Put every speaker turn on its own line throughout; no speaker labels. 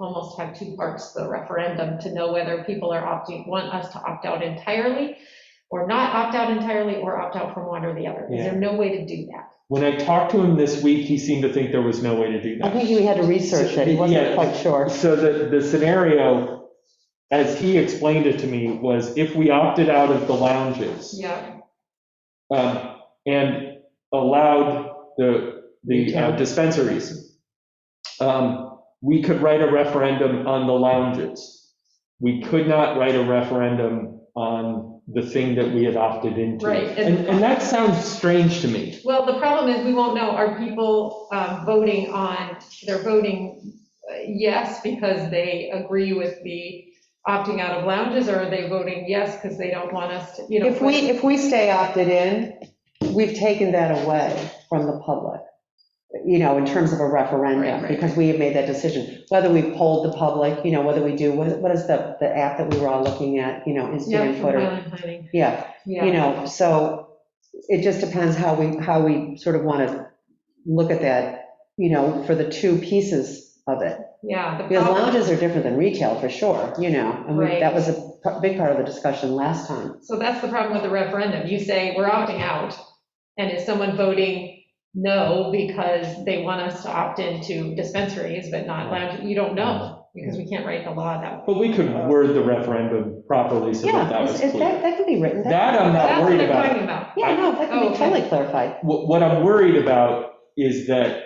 almost have two parts to the referendum to know whether people are opting, want us to opt out entirely or not opt out entirely or opt out from one or the other. Is there no way to do that?
When I talked to him this week, he seemed to think there was no way to do
I
that.
think he had to research it, he wasn't
Yeah.
quite sure.
So the, the scenario, as he explained it to me, was if we opted out of the lounges
Yeah.
um, and allowed the, the uh, dispensaries, um, we could write a referendum on the lounges. We could not write a referendum on the thing that we had opted into.
Right, and-
And, and that sounds strange to me.
Well, the problem is we won't know, are people um, voting on, they're voting uh, yes because they agree with the opting out of lounges or are they voting yes because they don't want us to, you know?
If we, if we stay opted in, we've taken that away from the public, you know, in terms of a
Right,
referendum,
right.
because we have made that decision. Whether we polled the public, you know, whether we do, what what is the, the app that we were all looking at, you know,
Yeah,
Instagram,
from
Twitter?
Highland Planning,
Yeah, you
yeah.
know, so it just depends how we, how we sort of want to look at that, you know, for the two pieces of it.
Yeah, the
Because
problem-
lounges are different than retail, for sure, you know, and we-
Oh. Right.
that was a p- big part of the discussion last time.
So that's the problem with the referendum. You say, we're opting out. And is someone voting no because they want us to opt into dispensaries but not lounge? You don't know because we can't write the law that way.
But we could word the referendum properly so
Yeah,
that that was
it's- it- that,
clear.
that can be written.
That um, I'm not
That's
worried
what I'm
about.
talking about.
Yeah, no,
Oh,
that can be
okay.
totally clarified.
What, what I'm worried about is that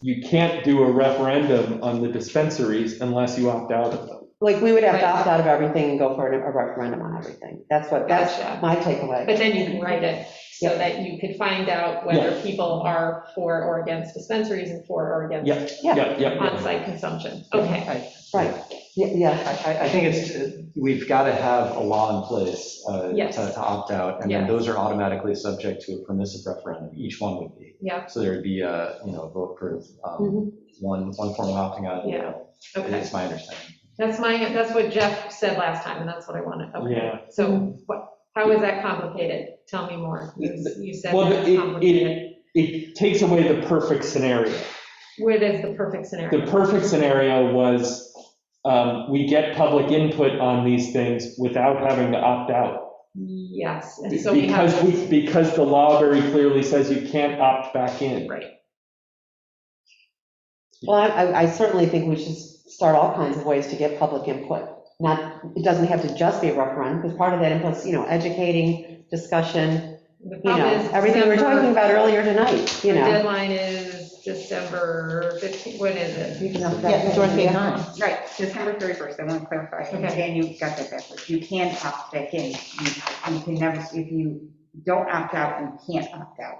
you can't do a referendum on the dispensaries unless you opt out of them.
Like, we would have to
Right.
opt out of everything and go for a referendum on everything. That's what, that's
Gotcha.
my takeaway.
But then you can write it so that you could find out whether people are for or against dispensaries and for or
Yeah.
against
Yeah.
Yep, yep, yep.
on-site consumption. Okay,
Right, Ye- yeah,
I, I- I think it's, we've got to have a law in place uh, to
Yes.
to opt out, and
Yeah.
then those are automatically subject to a permissive referendum, each one would be.
Yeah.
So there'd be a, you know, vote for um, one, one form of opting out, you know,
Mm-hmm. okay.
it's my understanding.
That's my, that's what Jeff said last time, and that's what I wanted. Okay.
Yeah.
So what, how is that complicated? Tell me more. You you said
Well,
that
it-
it's
it-
complicated.
It takes away the perfect scenario.
What is the perfect scenario?
The perfect scenario was um, we get public input on these things without having to opt out.
Yes, and so we have.
Because we, because the law very clearly says you can't opt back in.
Right,
well, I- I, I certainly think we should start all kinds of ways to get public input. Not, it doesn't have to just be a referendum, because part of that input's, you know, educating, discussion,
the
you
problem
know,
is.
everything we were
December-
talking about earlier tonight, you
The
know.
deadline is December 15, when is it?
Yeah, Dorothy, huh?
Right, December 31st, I want to clarify, and
Okay.
Dan, you got that backwards, you can opt back in, you you can never, if you don't opt out, you can't opt out.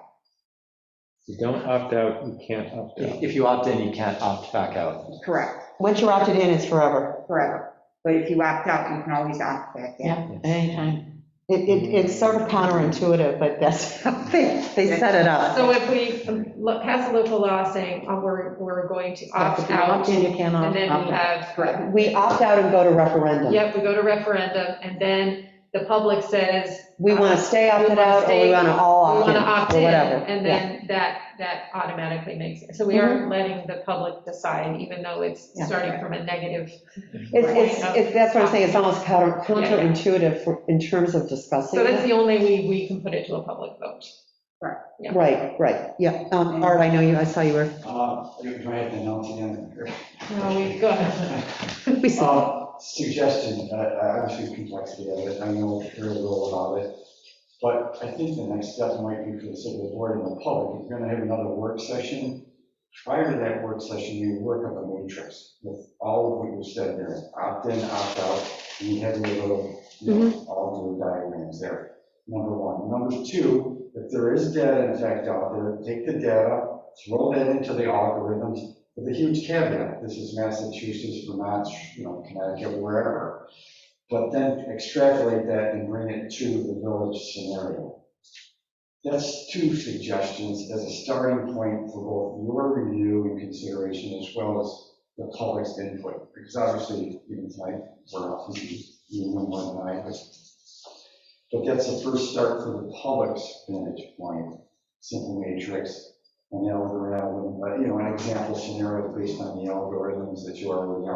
You don't opt out, you can't opt out.
If if you opt in, you can't opt back out.
Correct,
Once you're opted in, it's forever.
forever, but if you opt out, you can always opt back in.
Anytime. It, it, it's sort of counterintuitive, but that's how they, they set it up.
So if we um, lo- pass a local law saying, oh, we're, we're going to
If
opt
you
out,
opt in, you can't
and then
opt
we
out.
have,
We opt out and go to referendum.
yep, we go to referendum, and then the public says,
We want to stay opted out, or we want to all
we
opt
want
in,
to opt
or
in,
whatever.
and
Yeah. Mm-hmm.
then that, that automatically makes it. So we aren't letting the public decide, even though it's
Yeah.
starting from a negative.
It's, it's, it's, that's what I'm saying, it's almost counter- counterintuitive for- in terms of discussing.
So that's
it.
the only way we can put it to a public vote. yeah.
Right, right, yeah. Um, Art, I know you, I saw you were,
Uh, you can try it then, I'll see you on
No, we, go ahead.
we
the-
saw.
Um, Suggestion, uh, I understand the complexity of it, I know very little about it, but I think the next step might be for the city board and the public, if you're gonna have another work session, prior to that work session, you work on the matrix with all of what you said there, opt-in, opt-out, and you have your little, you know, all the diagrams there, number one. Number two, if there is data in fact out there, take the data, throw that into the algorithms, with a huge caveat, this is Massachusetts, Vermont, you know, Connecticut, wherever. But then extrapolate that and bring it to the village scenario. That's two suggestions as a starting point for both your review and consideration as well as the public's input. Because obviously, you can tonight, we're off, you know more than I, but but that's the first start for the public's vantage point, simple matrix, an algorithm, but, you know, an example scenario based on the algorithms that you already